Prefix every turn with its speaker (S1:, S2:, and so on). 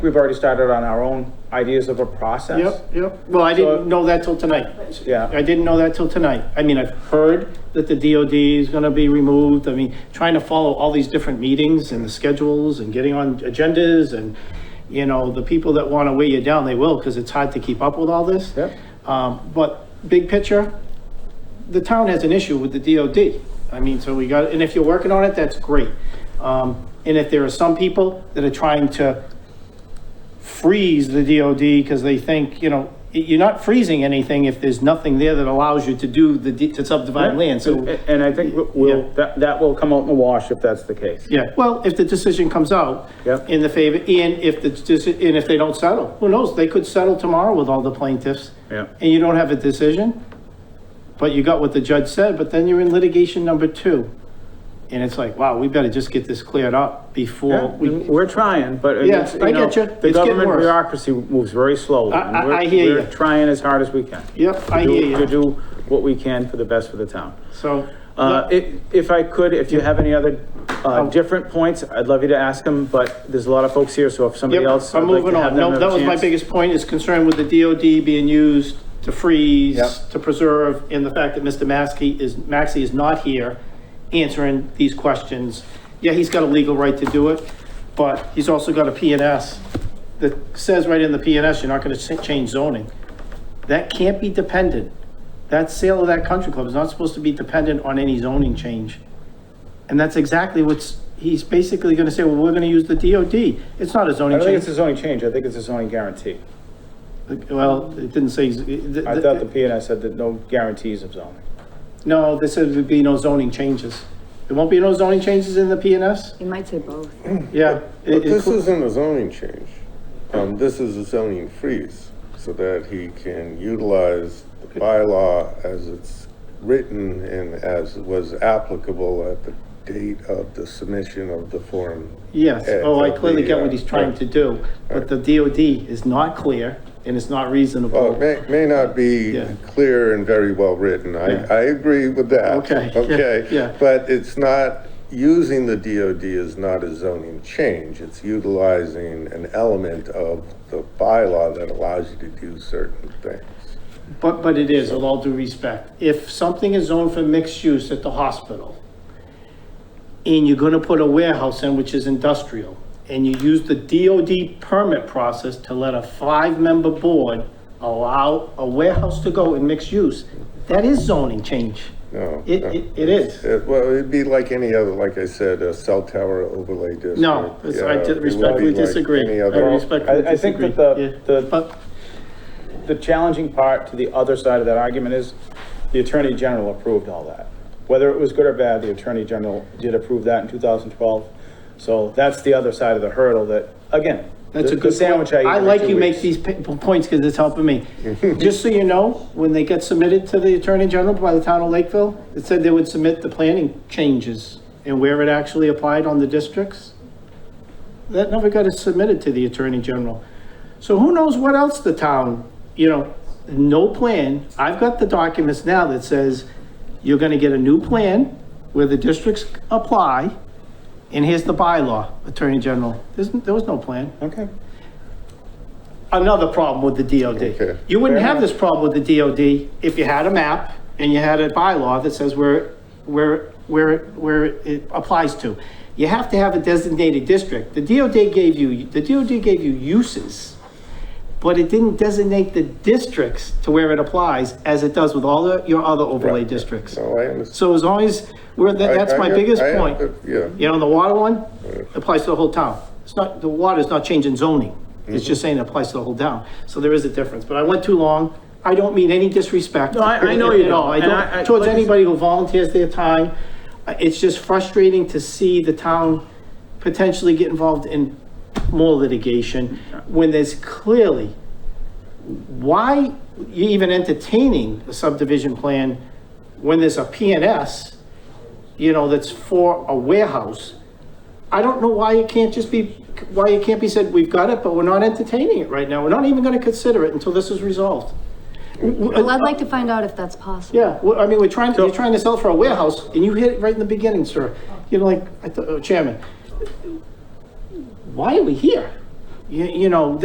S1: We've already started on our own ideas of a process.
S2: Yep, yep. Well, I
S1: So-
S2: didn't know that till tonight.
S1: Yeah.
S2: I didn't know that till tonight. I mean, I've heard that the DOD is going to be removed. I mean, trying to follow all these different meetings and the schedules and getting on agendas and, you know, the people that want to weigh you down, they will because it's hard to keep up with all this.
S1: Yep.
S2: Um, but big picture, the town has an issue with the DOD. I mean, so we got, and if you're working on it, that's great. Um, and if there are some people that are trying to freeze the DOD because they think, you know, y- you're not freezing anything if there's nothing there that allows you to do the, de- to subdivide land, so,
S1: And- And I think
S2: Yeah.
S1: we'll, that, that will come out in the wash if that's the case.
S2: yeah, well, if the decision comes out
S1: Yep.
S2: in the favor, and if the, deci- and if they don't settle, who knows, they could settle tomorrow with all the plaintiffs.
S1: Yeah.
S2: And you don't have a decision, but you got what the judge said, but then you're in litigation number two. And it's like, wow, we better just get this cleared up before
S1: Yeah,
S2: we,
S1: We're trying, but uh, it's,
S2: Yeah,
S1: you
S2: I
S1: know,
S2: get you.
S1: The
S2: It's getting
S1: government
S2: worse.
S1: bureaucracy moves very slowly.
S2: I-
S1: and
S2: I-
S1: we're-
S2: I hear
S1: We're
S2: you.
S1: trying as hard as we can.
S2: Yep, I
S1: to do-
S2: hear you.
S1: To do what we can for the best for the town.
S2: so.
S1: Uh, if, if I could, if you have any other, uh,
S2: Oh.
S1: different points, I'd love you to ask them, but there's a lot of folks here, so if somebody
S2: Yep,
S1: else.
S2: I'm
S1: I'd like to
S2: moving
S1: have
S2: on.
S1: them
S2: No,
S1: have
S2: that
S1: a
S2: was my
S1: chance.
S2: biggest point, is concern with the DOD being used to freeze,
S1: Yep.
S2: to preserve, and the fact that Mr. Maskey is, Maxey is not here answering these questions. Yeah, he's got a legal right to do it, but he's also got a PNS that says right in the PNS, you're not gonna sa- change zoning. That can't be dependent. That sale of that country club is not supposed to be dependent on any zoning change. And that's exactly what's, he's basically gonna say, well, we're gonna use the DOD. It's not a
S1: I
S2: zoning
S1: don't think it's
S2: change.
S1: a zoning change, I think it's a zoning guarantee.
S2: Well, it didn't say.
S1: I thought the P and I said that no guarantees of zoning.
S2: No, this said there'd be no zoning changes. There won't be no zoning changes in the PNS?
S3: You might say both.
S2: Yeah.
S4: But
S2: It-
S4: this
S2: it-
S4: isn't a zoning change. Um, this is a zoning freeze, so that he can utilize the bylaw as it's written and as was applicable at the date of the submission of the form.
S2: Yes,
S4: Yeah,
S2: oh, I
S4: it'll
S2: clearly
S4: be,
S2: get what
S4: uh,
S2: he's trying to do, but the DOD is not clear and it's not
S4: Well,
S2: reasonable.
S4: it may, may not be
S2: Yeah.
S4: clear and very well written. I,
S2: Yeah.
S4: I agree with that.
S2: Okay, yeah,
S4: Okay.
S2: yeah.
S4: But it's not, using the DOD is not a zoning change. It's utilizing an element of the bylaw that allows you to do certain things.
S2: But, but it is, with all due respect. If something is zoned for mixed use at the hospital, and you're gonna put a warehouse in, which is industrial, and you use the DOD permit process to let a five-member board allow a warehouse to go in mixed use, that is zoning change.
S4: No.
S2: It,
S4: no.
S2: it, it is.
S4: It- Well, it'd be like any other, like I said, a cell tower overlay district.
S2: No, it's- I
S4: Yeah,
S2: di-
S4: it would be
S2: respectfully
S4: like
S2: disagree.
S4: any
S2: I
S4: other-
S2: respectfully
S1: I- I think
S2: disagree.
S1: that the-
S2: Yeah.
S1: the-
S2: But,
S1: The challenging part to the other side of that argument is the Attorney General approved all that. Whether it was good or bad, the Attorney General did approve that in 2012. So that's the other side of the hurdle that, again,
S2: That's
S1: the-
S2: a
S1: the
S2: good
S1: sandwich
S2: point.
S1: I eat
S2: I
S1: every
S2: like
S1: two
S2: you make
S1: weeks.
S2: these pa- points because it's helping me. Just so you know, when they get submitted to the Attorney General by the town of Lakeville, it said they would submit the planning changes and where it actually applied on the districts. That never got submitted to the Attorney General. So who knows what else the town, you know, no plan. I've got the documents now that says you're gonna get a new plan where the districts apply, and here's the bylaw, Attorney General. There's, there was no plan
S1: Okay,
S2: another problem with the
S4: Okay.
S2: DOD. You wouldn't
S1: Fair
S2: have
S1: enough.
S2: this problem with the DOD if you had a map and you had a bylaw that says where, where, where, where it applies to. You have to have a designated district. The DOD gave you, the DOD gave you uses, but it didn't designate the districts to where it applies as it does with all the- your other overlay districts.
S4: No, I understand.
S2: So as long as, we're, that- that's
S4: I-
S2: my
S4: I-
S2: biggest
S4: I-
S2: point.
S4: Yeah.
S2: You know, the water one applies to the whole town. It's not, the water's not changing zoning.
S4: Mm-hmm.
S2: It's just saying it applies to the whole town. So there is a difference, but I went too long. I don't mean any disrespect.
S1: No, I- I know you
S2: at all.
S1: don't,
S2: I
S1: and I- I-
S2: don't, towards
S1: like I said-
S2: anybody who volunteers their time. Uh, It's just frustrating to see the town potentially get involved in more litigation when there's clearly, why you even entertaining a subdivision plan when there's a PNS, you know, that's for a warehouse? I don't know why it can't just be, why it can't be said, we've got it, but we're not entertaining it right now. We're not even gonna consider it until this is resolved.
S3: Well, I'd like to find out if that's possible.
S2: Yeah, well, I mean, we're trying, you're trying to sell for a warehouse, and you hit it right in the beginning, sir. You're like, I thought, oh, Chairman, why are we here? you, you know,